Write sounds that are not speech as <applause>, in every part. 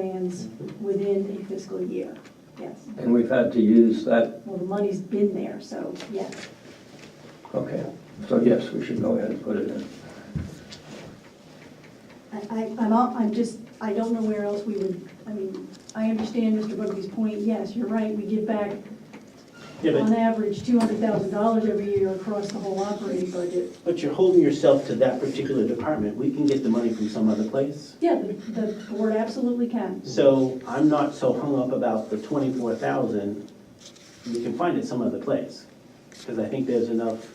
plans within a fiscal year, yes. And we've had to use that, Well, the money's been there, so yes. okay. So yes, we should go ahead and put it in. I, I- I'm, all- I'm just, I don't know where else we would, I mean, I understand Mr. Bugby's point, yes, you're right, we give back Yeah, on but, average two hundred thousand dollars every year across the whole operating budget. but you're holding yourself to that particular department. We can get the money from some other place. Yeah, the, the board absolutely can. So I'm not so hung up about the twenty-four thousand. We can find it some other place. Because I think there's enough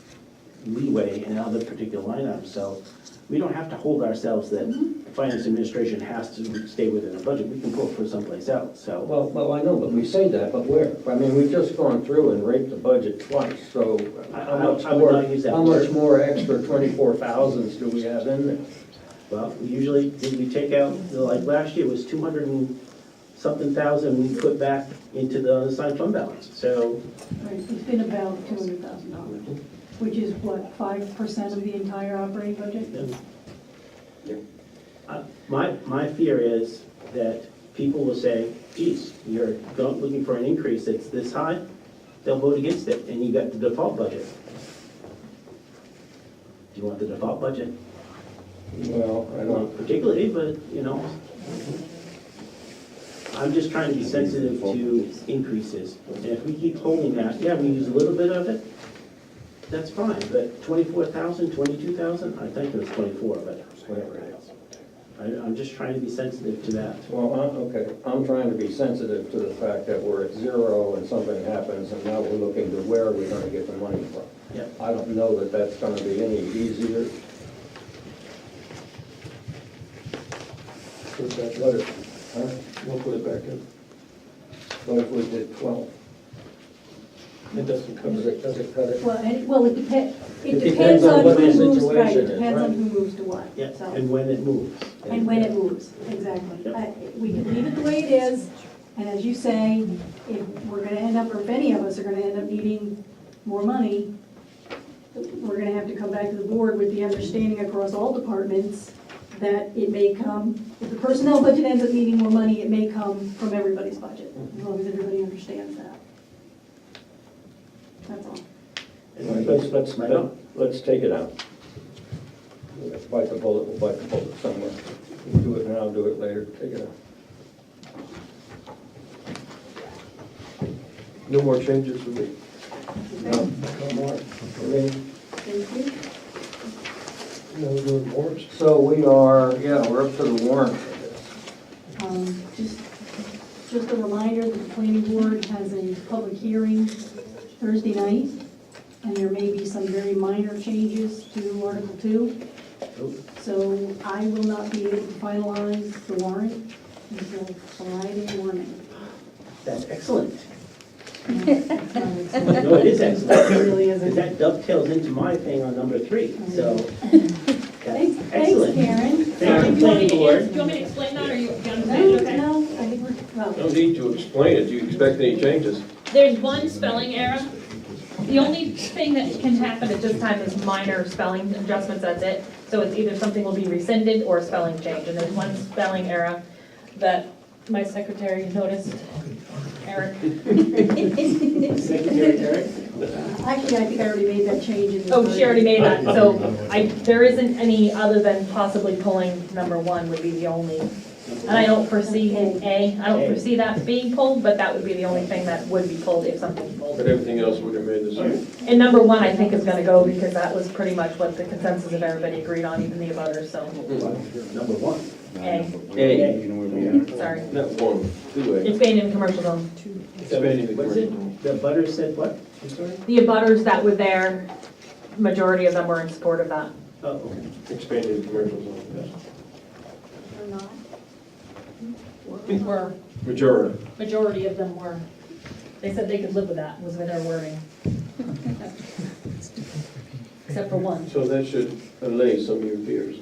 leeway in other particular line items. So we don't have to hold ourselves that the finance administration has to stay within a budget. We can pull it from someplace else, so. Well, well, I know, but we say that, but where? I mean, we've just gone through and raped the budget twice, so how I- I much would- I would more, not use that how much word. more extra twenty-four thousands do we have in there? Well, we usually, did we take out, like last year was two hundred and something thousand we put back into the unassigned fund balance. So Right, it's been about two hundred thousand dollars, which is what, five percent of the entire operating budget? Uh, My, my fear is that people will say, geez, you're go- looking for an increase that's this high, they'll vote against it, and you got the default budget. Do you want the default budget? Well, I Not don't, particularly, but, you know. I'm just trying to be sensitive to increases, and if we keep holding that, yeah, we use a little bit of it, that's fine, but twenty-four thousand, twenty-two thousand, I think it was twenty-four, but whatever it is. I, I'm just trying to be sensitive to that. well, I'm, okay, I'm trying to be sensitive to the fact that we're at zero and something happens, and now we're looking to where are we gonna get the money from? Yeah. I don't know that that's gonna be any easier. Put it back What if- huh? in. We'll put it back in. What if we did twelve? It doesn't Does cover it. it, does it cut it? Well, and, well, it depends, It it depends on what who the moves, right, situation it is, depends on right. who moves to what, Yeah, so. and when it moves. And when it moves, exactly. Yep. I- We can leave it the way it is, and as you say, if we're gonna end up, or if any of us are gonna end up needing more money, we're gonna have to come back to the board with the understanding across all departments that it may come, if the personnel budget ends up needing more money, it may come from everybody's budget, as long as everybody understands that. That's all. And- Let's, let's, Right on. let's take it out. Let's Bite the bullet, we'll bite the bullet somewhere. Do it now, do it later, take it out. No more changes for me. No, no more. I mean, Thank you. No, no more. So we are, yeah, we're up to the warrant. for this. Um, Just, just a reminder that the planning board has a public hearing Thursday night, and there may be some very minor changes to Article 2. oh, So I will not be able to finalize the warrant until Friday morning. That's excellent. It No, it is excellent. really Because isn't. that dovetails into my thing on number three, so. that's <laughs> Thanks, thanks, Excellent. Karen. Thank you, Do you want me planning to, ans- do board. you want me to explain that, or you, you No, understand, okay? no, I think we're, well, No need to explain it. Do you expect any changes? There's one spelling error. The only thing that can happen at this time is minor spelling adjustments, that's it. So it's either something will be rescinded or a spelling change, and there's one spelling error that my secretary noticed, Eric. Secretary Eric? actually, I think I already made that change in the. Oh, she already made that, so I, there isn't any other than possibly pulling number one would be the only. And I don't foresee an A, I don't foresee that being pulled, but that would be the only thing that would be pulled if something pulled. But everything else would have made the same. And number one, I think is gonna go because that was pretty much what the consensus of everybody agreed on, even the abutters, so Number one. A, A. You know where we are. sorry. Not one, two A. It's been in commercial zone. Expanding the What's it, the butter said what? I'm sorry? The abutters that were there, majority of them were in support of that. Oh, okay. uh, Expanding the commercial zone, Or not. Were, yes. Majority. majority of them were. They said they could live with that, was their wording. Except for one. So that should allay some of your fears.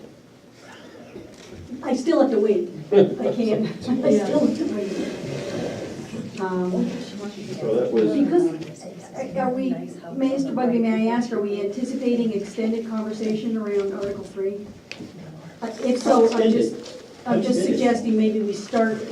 I still have to wait. I can't, I still have to wait. Um, So that was, Because, uh, are we, may- Mr. Bugby, may I ask, are we anticipating extended conversation around Article 3? Uh, If so, I'm just, I'm just suggesting maybe we start